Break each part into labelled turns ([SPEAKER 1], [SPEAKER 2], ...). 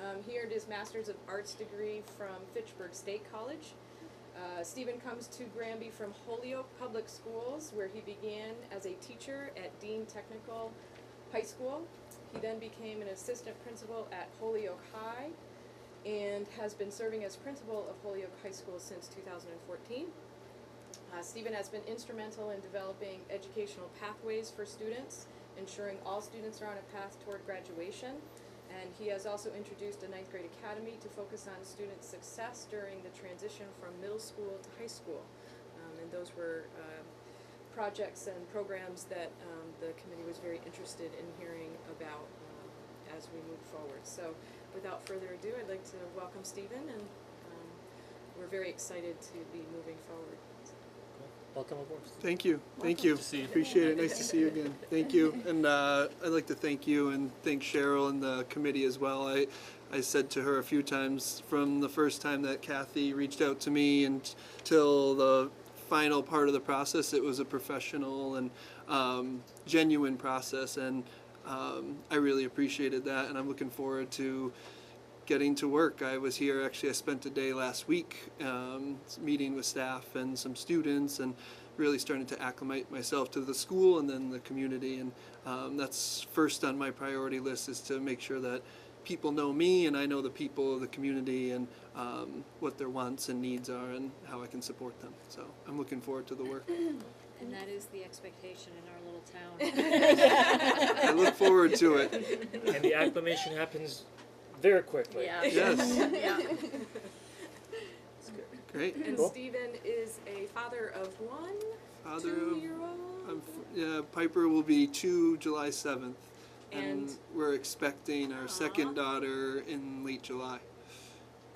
[SPEAKER 1] Um, he earned his Master's of Arts degree from Fitchburg State College. Uh, Stephen comes to Granby from Holyoke Public Schools, where he began as a teacher at Dean Technical High School. He then became an assistant principal at Holyoke High and has been serving as principal of Holyoke High School since 2014. Uh, Stephen has been instrumental in developing educational pathways for students, ensuring all students are on a path toward graduation. And he has also introduced a ninth grade academy to focus on student success during the transition from middle school to high school. Um, and those were um, projects and programs that um, the committee was very interested in hearing about um, as we move forward. So without further ado, I'd like to welcome Stephen, and um, we're very excited to be moving forward.
[SPEAKER 2] Welcome aboard.
[SPEAKER 3] Thank you, thank you.
[SPEAKER 2] see you.
[SPEAKER 3] Appreciate it, nice to see you again. Thank you, and uh, I'd like to thank you and thank Cheryl and the committee as well. I, I said to her a few times from the first time that Kathy reached out to me and till the final part of the process, it was a professional and um, genuine process, and um, I really appreciated that, and I'm looking forward to getting to work. I was here, actually, I spent a day last week um, meeting with staff and some students and really starting to acclimate myself to the school and then the community. And um, that's first on my priority list is to make sure that people know me and I know the people of the community and um, what their wants and needs are and how I can support them. So I'm looking forward to the work.
[SPEAKER 4] And that is the expectation in our little town.
[SPEAKER 3] I look forward to it.
[SPEAKER 2] And the acclimation happens very quickly.
[SPEAKER 3] Yes,
[SPEAKER 4] Yeah.
[SPEAKER 3] great.
[SPEAKER 1] And
[SPEAKER 2] Cool.
[SPEAKER 1] Stephen is a father of one
[SPEAKER 3] Father of-
[SPEAKER 1] two-year-old.
[SPEAKER 3] I'm, Um, f- yeah, Piper will be two July 7th. And,
[SPEAKER 1] And-
[SPEAKER 3] we're expecting our second daughter in late July.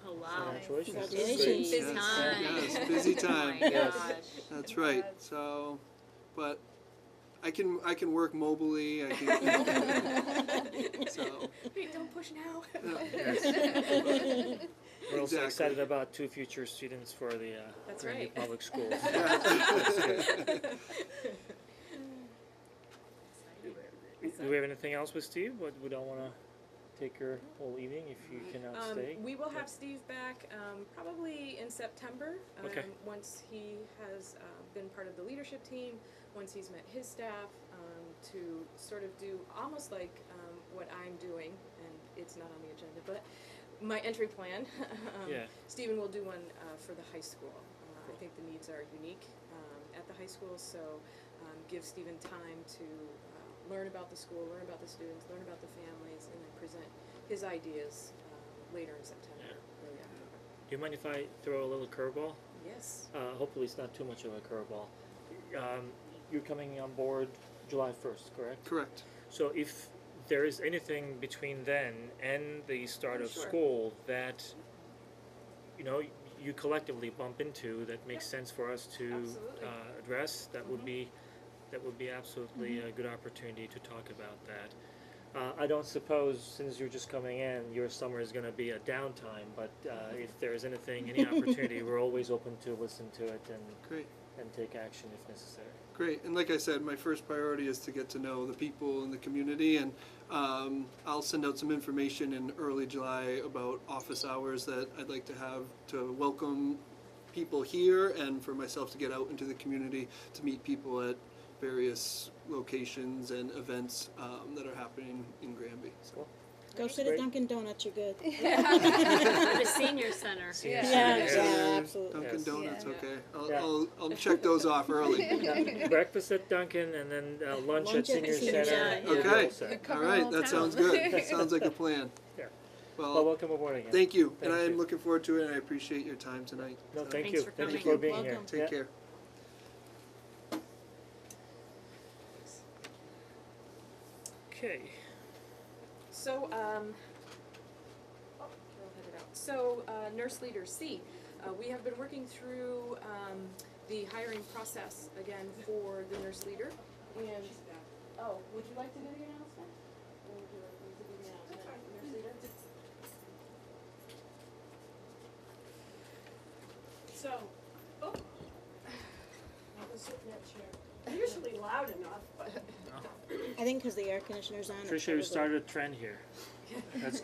[SPEAKER 4] Oh,
[SPEAKER 1] Ah,
[SPEAKER 4] wow.
[SPEAKER 2] Congratulations.
[SPEAKER 4] Busy
[SPEAKER 1] Busy
[SPEAKER 3] Yes,
[SPEAKER 4] time.
[SPEAKER 3] yes, busy time.
[SPEAKER 4] Oh, my
[SPEAKER 2] Yes.
[SPEAKER 4] gosh.
[SPEAKER 3] That's right. So, but I can I can work mobily. I can. so
[SPEAKER 1] Wait, don't push now. Um,
[SPEAKER 2] We're also
[SPEAKER 3] Exactly.
[SPEAKER 2] excited about two future students for the uh,
[SPEAKER 1] That's
[SPEAKER 2] Granby
[SPEAKER 1] right.
[SPEAKER 2] public schools. Do we have anything else with Steve? What we don't want to take your whole evening if you cannot stay.
[SPEAKER 1] Um, we will have Steve back um, probably in September. Um,
[SPEAKER 2] Okay.
[SPEAKER 1] Once he has uh, been part of the leadership team, once he's met his staff, um, to sort of do almost like um, what I'm doing, and it's not on the agenda, but my entry plan. um,
[SPEAKER 2] Yeah.
[SPEAKER 1] Stephen will do one uh, for the high school. Uh, I think the needs are unique um, at the high school, so um, give Stephen time to uh, learn about the school, learn about the students, learn about the families, and then present his ideas um, later in September.
[SPEAKER 2] Yeah.
[SPEAKER 1] early October.
[SPEAKER 2] Do you mind if I throw a little curveball?
[SPEAKER 1] Yes.
[SPEAKER 2] Uh, hopefully, it's not too much of a curveball. Um, you're coming on board July 1st, correct?
[SPEAKER 3] correct.
[SPEAKER 2] So if there is anything between then and the start of
[SPEAKER 1] Sure.
[SPEAKER 2] school that you know you collectively bump into that makes sense for us to
[SPEAKER 1] Absolutely. Mm-hmm.
[SPEAKER 2] uh, address, that would be that would be absolutely a good opportunity to talk about that. Uh, I don't suppose since you're just coming in, your summer is going to be a downtime. But uh, if there is anything, any opportunity, we're always open to listen to it and
[SPEAKER 3] Great.
[SPEAKER 2] and take action if necessary.
[SPEAKER 3] Great. And like I said, my first priority is to get to know the people in the community, and um, I'll send out some information in early July about office hours that I'd like to have to welcome people here and for myself to get out into the community to meet people at various locations and events um, that are happening in Granby. So
[SPEAKER 2] Cool.
[SPEAKER 5] Go sit
[SPEAKER 2] Great.
[SPEAKER 5] at Dunkin' Donuts, you're good. Yeah,
[SPEAKER 4] For the senior center.
[SPEAKER 2] Senior
[SPEAKER 5] yeah,
[SPEAKER 2] center.
[SPEAKER 5] absolutely.
[SPEAKER 3] Dunkin'
[SPEAKER 2] Yes.
[SPEAKER 3] Donuts,
[SPEAKER 1] Yeah.
[SPEAKER 3] okay. I'll,
[SPEAKER 2] Yeah.
[SPEAKER 3] I'll, I'll check those off early.
[SPEAKER 2] Yeah, breakfast at Dunkin' and then uh, lunch, at
[SPEAKER 5] Lunch at
[SPEAKER 2] Senior
[SPEAKER 5] the
[SPEAKER 2] Center.
[SPEAKER 5] senior center.
[SPEAKER 2] and
[SPEAKER 3] Okay.
[SPEAKER 2] we're all set.
[SPEAKER 3] All right, that sounds good. That sounds like a plan.
[SPEAKER 2] Yeah. Well,
[SPEAKER 3] Well,
[SPEAKER 2] welcome aboard again.
[SPEAKER 3] thank you, and
[SPEAKER 2] Thank
[SPEAKER 3] I am
[SPEAKER 2] you.
[SPEAKER 3] looking forward to it, and I appreciate your time tonight.
[SPEAKER 2] No,
[SPEAKER 3] So,
[SPEAKER 2] thank
[SPEAKER 4] Thanks
[SPEAKER 2] you.
[SPEAKER 4] for
[SPEAKER 2] Thank you
[SPEAKER 4] coming.
[SPEAKER 2] for being here.
[SPEAKER 5] Welcome.
[SPEAKER 3] Take
[SPEAKER 2] Yeah.
[SPEAKER 3] care.
[SPEAKER 2] Okay.
[SPEAKER 1] So, um, oh, Carol had it out. So, uh, nurse leader C, uh, we have been working through, um, the hiring process again for the nurse leader. And, oh, would you like to do the announcement? Or would you like me to do the announcement, nurse leader? So, oh. I was sitting at chair. Usually loud enough, but.
[SPEAKER 5] I think because the air conditioner's on. it
[SPEAKER 2] Tricia, you
[SPEAKER 5] probably-
[SPEAKER 2] started a trend here. That's